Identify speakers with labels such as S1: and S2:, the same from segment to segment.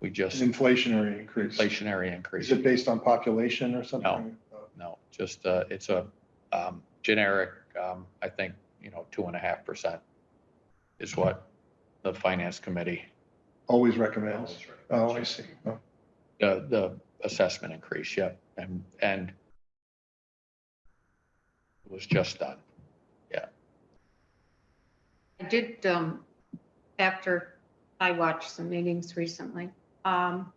S1: We just
S2: Inflationary increase.
S1: inflationary increase.
S2: Is it based on population or something?
S1: No, just, uh, it's a, um, generic, um, I think, you know, two and a half percent is what the finance committee,
S2: Always recommends. Oh, I see. Oh,
S1: the, the assessment increase, yep, and, and it was just done.
S3: I did, um, after I watched some meetings recently, um,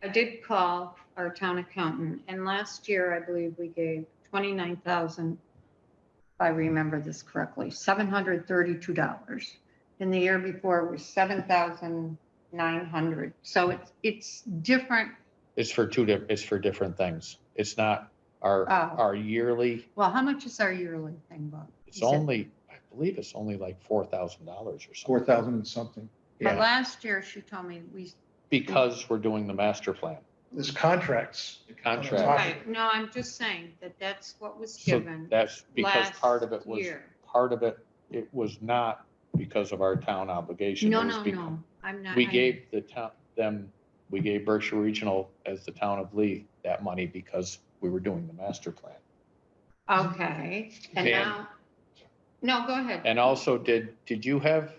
S3: I did call our town accountant and last year, I believe we gave twenty-nine thousand, if I remember this correctly, seven hundred thirty-two dollars. And the year before it was seven thousand nine hundred. So it's, it's different.
S1: It's for two, di- it's for different things. It's not our,
S3: Oh.
S1: our yearly,
S3: Well, how much is our yearly thing, Bob?
S1: it's
S3: You said-
S1: only, I believe it's only like four thousand dollars or something.
S2: Four thousand and something.
S3: But
S1: Yeah,
S3: last year, she told me we
S1: because we're doing the master plan,
S2: There's contracts.
S1: the
S2: Right.
S1: contract.
S3: Right, no, I'm just saying that that's what was
S1: So
S3: given
S1: that's because
S3: last
S1: part of it was
S3: year.
S1: part of it, it was not because of our town obligation.
S3: No,
S1: It was
S3: no,
S1: becau-
S3: no, I'm not.
S1: We
S3: I-
S1: gave the town, them, we gave Berkshire Regional as the town of Lee that money because we were doing the master plan.
S3: Okay, and
S1: Dan.
S3: now, no, go ahead.
S1: And also, did, did you have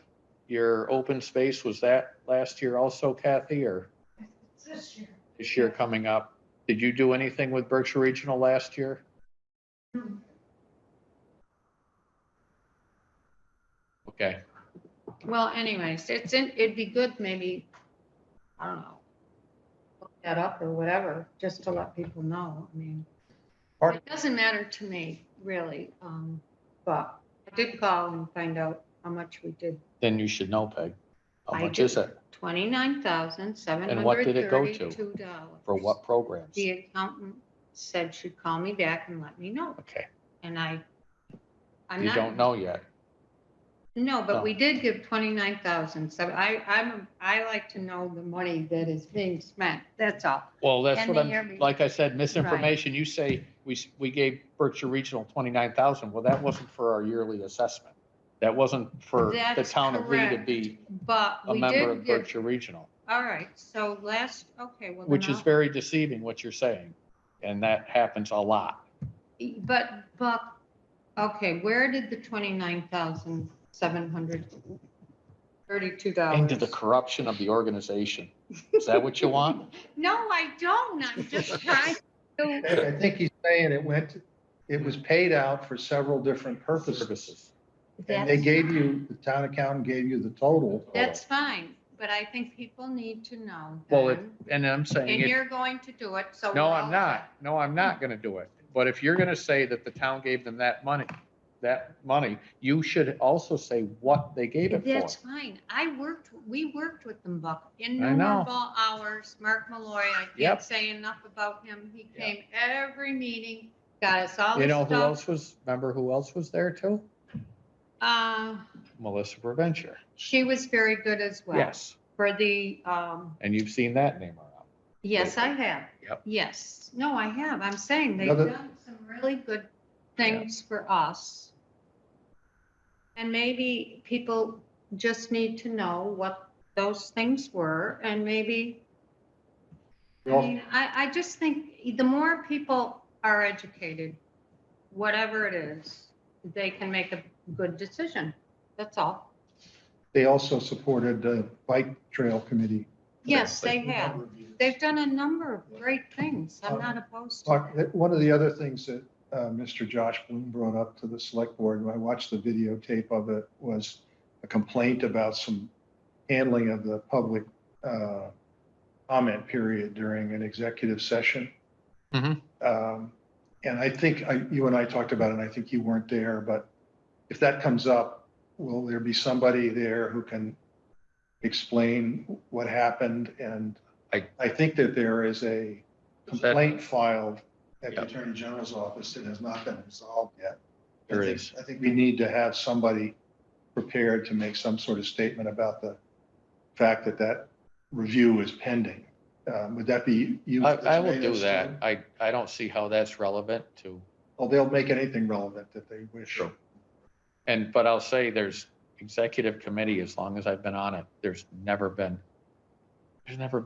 S1: your open space, was that last year also Kathy, or
S4: This year.
S1: this year coming up? Did you do anything with Berkshire Regional last year?
S3: Hmm.
S1: Okay,
S3: Well, anyways, it's, in. it'd be good maybe, I don't know, look that up or whatever, just to let people know, I mean.
S2: Part-
S3: It doesn't matter to me, really, um, but I did call and find out how much we did
S1: then you should know, Peg. How
S3: I
S1: much is
S3: do.
S1: it?
S3: Twenty-nine thousand, seven
S1: And what
S3: hundred
S1: did it go to?
S3: thirty-two dollars.
S1: For what programs?
S3: The accountant said she'd call me back and let me know,
S1: Okay,
S3: and I, I'm
S1: you
S3: not.
S1: don't know Oh. yet.
S3: No,
S1: No.
S3: but we did give twenty-nine thousand, so I, I'm, I like to know the money that is being spent, that's all.
S1: Well, that's
S3: And
S1: what
S3: the year
S1: I'm,
S3: be-
S1: like I said, misinformation, you say, we, s- we gave Berkshire Regional twenty-nine thousand, well, that wasn't for our yearly assessment. That wasn't for the
S3: That's
S1: town of Lee to
S3: correct.
S1: be
S3: But
S1: a
S3: we
S1: member of
S3: did give,
S1: Berkshire Regional,
S3: all right, so last, okay, well. then
S1: which is
S3: I'll-
S1: very deceiving what you're saying, and that happens a lot.
S3: But, but, okay, where did the twenty-nine thousand, seven hundred thirty-two dollars?
S1: Into the corruption of the organization. Is that what you want?
S3: No, I don't. I'm just trying to,
S2: I I think he's saying it went, it was paid out for several different purposes.
S1: Services.
S2: And they
S3: That's
S2: gave
S3: fine.
S2: you, the town accountant gave you the total.
S3: that's fine, but I think people need to know.
S1: Well, it-
S3: then,
S1: And I'm saying,
S3: And
S1: if-
S3: you're going to do it, so.
S1: no,
S3: we're
S1: I'm
S3: all
S1: not, no, I'm not gonna do it. But if you're gonna say that the town gave them that money, that money, you should also say what they gave it for.
S3: That's fine. I worked, we worked with them, Buck,
S1: know.
S3: innumerable hours. Mark Malloy, I
S1: Yep.
S3: can't say enough about him. He
S1: Yeah.
S3: came every meeting, got us all
S1: You
S3: the
S1: know who
S3: stuff.
S1: else was, remember who else was there too?
S3: Uh,
S1: Melissa Preventure.
S3: she was very good as well.
S1: Yes,
S3: For the, um,
S1: and you've seen that name around.
S3: yes, I have.
S1: Yep.
S3: Yes. No, I have. I'm saying they've
S2: Another-
S3: done some really good things for us. And maybe people just need to know what those things were and maybe I
S2: Well-
S3: mean, I, I just think the more people are educated, whatever it is, they can make a good decision. That's all.
S2: They also supported the bike trail committee.
S3: Yes, they have. They've done a number of great things.
S2: Uh,
S3: I'm not opposed to
S2: Talk- uh,
S3: it.
S2: One of the other things that uh, Mr. Josh Bloom brought up to the select board, and I watched the videotape of it, was a complaint about some handling of the public uh, comment period during an executive session.
S1: Mhm.
S2: Um, And I think, I- you and I talked about it, and I think you weren't there, but if that comes up, will there be somebody there who can explain what happened? And
S1: I-
S2: I think that there is a complaint filed at the
S1: Yep.
S2: Attorney General's office that has not been resolved yet. I
S1: There
S2: think-
S1: is.
S2: I think we need to have somebody prepared to make some sort of statement about the fact that that review is pending. Um, Would that be you?
S1: I, I will
S2: Mr.
S1: do
S2: Mayor?
S1: that. I, I don't see how that's relevant to,
S2: Well, they'll make anything relevant that they wish.
S1: Sure. and, but I'll say there's executive committee, as long as I've been on it, there's never been, there's never